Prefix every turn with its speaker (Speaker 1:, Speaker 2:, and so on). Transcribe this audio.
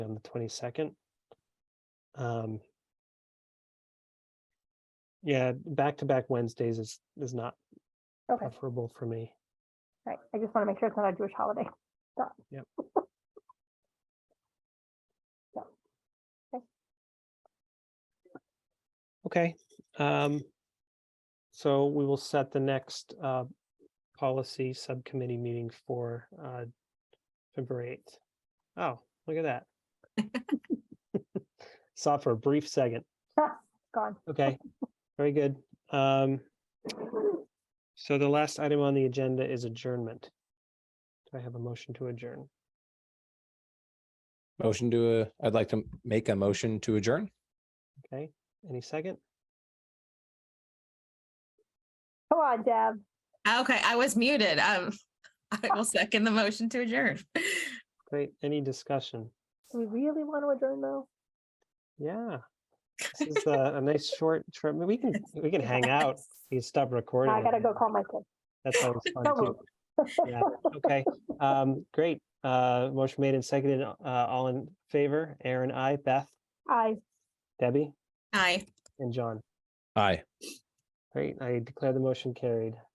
Speaker 1: twenty-second. Um. Yeah, back-to-back Wednesdays is, is not
Speaker 2: Okay,
Speaker 1: preferable for me.
Speaker 2: right. I just want to make sure it's not a Jewish holiday.
Speaker 1: Yep.
Speaker 2: Yeah. Okay.
Speaker 1: Okay, um. So we will set the next, uh, policy subcommittee meeting for, uh, February eighth. Oh, look at that. Saw for a brief second.
Speaker 2: Gone.
Speaker 1: Okay, very good. Um, so the last item on the agenda is adjournment. Do I have a motion to adjourn?
Speaker 3: Motion to, uh, I'd like to make a motion to adjourn.
Speaker 1: Okay, any second?
Speaker 2: Come on, Deb.
Speaker 4: Okay, I was muted. Um, I will second the motion to adjourn.
Speaker 1: Great, any discussion?
Speaker 2: Do we really want to adjourn though?
Speaker 1: Yeah. This is a, a nice short trip. We can, we can hang out. You stop recording.
Speaker 2: I gotta
Speaker 1: it.
Speaker 2: go call my kid.
Speaker 1: That's always fun
Speaker 2: Don't
Speaker 1: too. Yeah, okay. Um, great. Uh, motion made and seconded, uh, all in favor, Aaron, I, Beth,
Speaker 2: I,
Speaker 1: Debbie,
Speaker 4: Aye.
Speaker 1: and John.
Speaker 3: Aye.
Speaker 1: Great, I declare the motion carried.